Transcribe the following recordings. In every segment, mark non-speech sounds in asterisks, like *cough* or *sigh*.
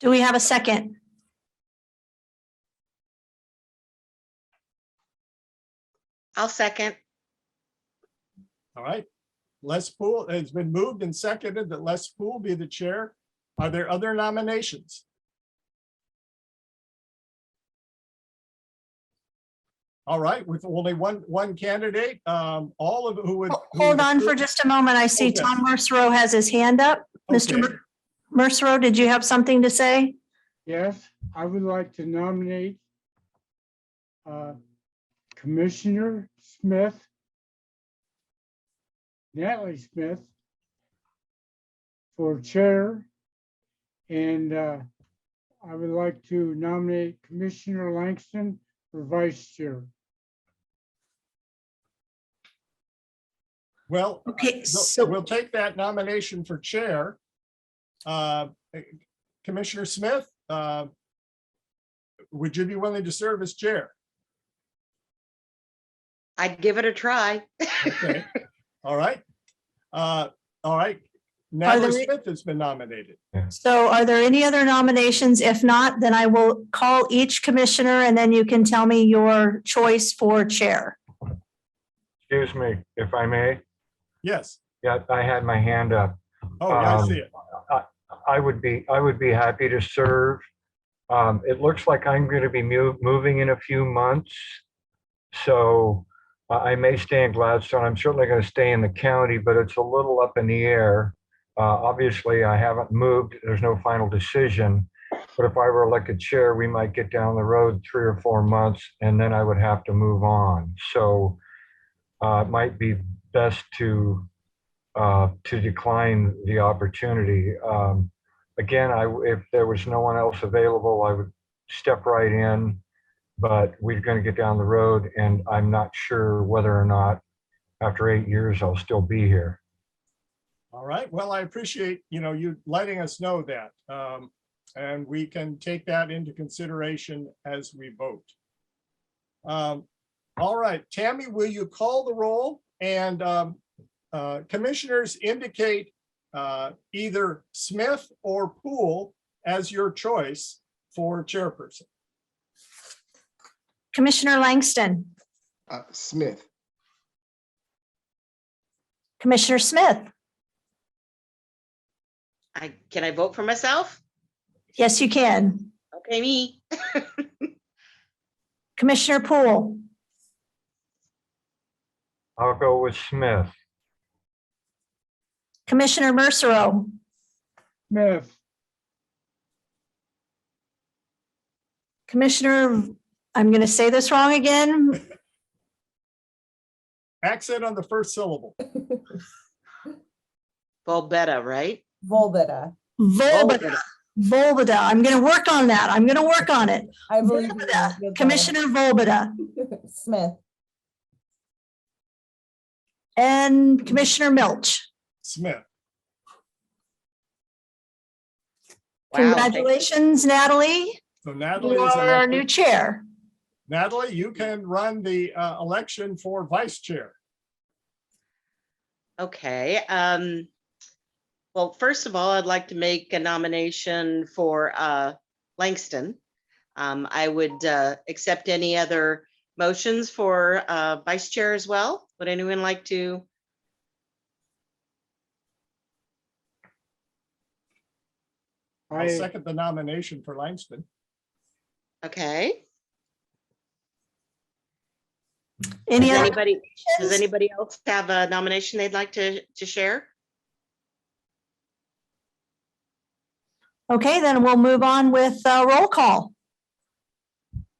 Do we have a second? I'll second. All right. Les Poole, it's been moved and seconded that Les Poole be the chair. Are there other nominations? All right, with only one, one candidate, um, all of who would. Ho- who Hold would on for approve- just a moment. I see Okay. Tom Mercero has his hand up. Mr. Okay. Mer- Mercero, did you have something to say? Yes, I would like to nominate uh, Commissioner Smith, Natalie Smith, for chair. And uh, I would like to nominate Commissioner Langston for vice chair. Well, Okay, we'll- so we'll take that nomination for chair. Uh, Commissioner Smith, uh, would you be willing to serve as chair? I'd give it a try. Okay, all right. Uh, all right, there- Natalie Smith has been nominated. so are there any other nominations? If not, then I will call each commissioner and then you can tell me your choice for chair. Excuse me, if I may. Yes, Yeah, I had my hand up. oh, yeah, I Um, see it. I would be, I would be happy to serve. Um, It looks like I'm going to be mu- moving in a few months. So I I may stay in Gladstone. I'm certainly going to stay in the county, but it's a little up in the air. Uh, Obviously, I haven't moved. There's no final decision. But if I were elected chair, we might get down the road three or four months and then I would have to move on. So uh, it might be best to uh, to decline the opportunity. Um, Again, I, if there was no one else available, I would step right in. But we're going to get down the road and I'm not sure whether or not after eight years, I'll still be here. All right, well, I appreciate, you know, you letting us know that. Um, and we can take that into consideration as we vote. Um, all right, Tammy, will you call the roll? And, um, uh, commissioners indicate, uh, either Smith or Poole as your choice for chairperson. Commissioner Langston, Uh, Smith, Commissioner Smith. I, can I vote for myself? Yes, you can. Okay, me. Commissioner Poole, I'll go with Smith. Commissioner Mercero, Smith, Commissioner, I'm going to say this wrong again, Accent on the first syllable. Volbetta, right? Volbetta. Oh, Volbada, Volbetta. Volbada. I'm going to work on that. I'm going to work on it. I believe. in you. Volbada. Good luck. Commissioner Volbada. *laughs* Smith, And Commissioner Milch, Smith, Wow, thank- congratulations, Natalie. so Natalie You is are our new elected. chair. Natalie, you can run the, uh, election for vice chair. Okay, um, well, first of all, I'd like to make a nomination for, uh, Langston. Um, I would, uh, accept any other motions for, uh, vice chair as well. Would anyone like to? I'll I, second the nomination for Langston. Okay, Any Does other anybody, does questions? anybody else have a nomination they'd like to, to share? Okay, then we'll move on with uh, roll call.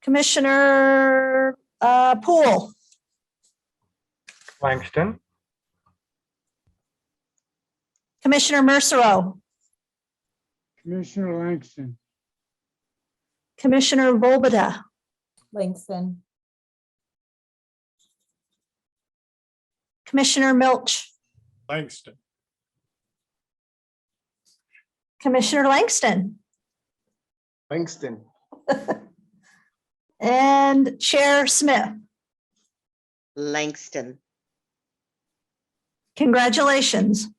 Commissioner uh, Poole, Langston, Commissioner Mercero, Commissioner Langston, Commissioner Volbada, Langston, Commissioner Milch, Langston. Commissioner Langston, Langston, and Chair Smith. Langston. Congratulations.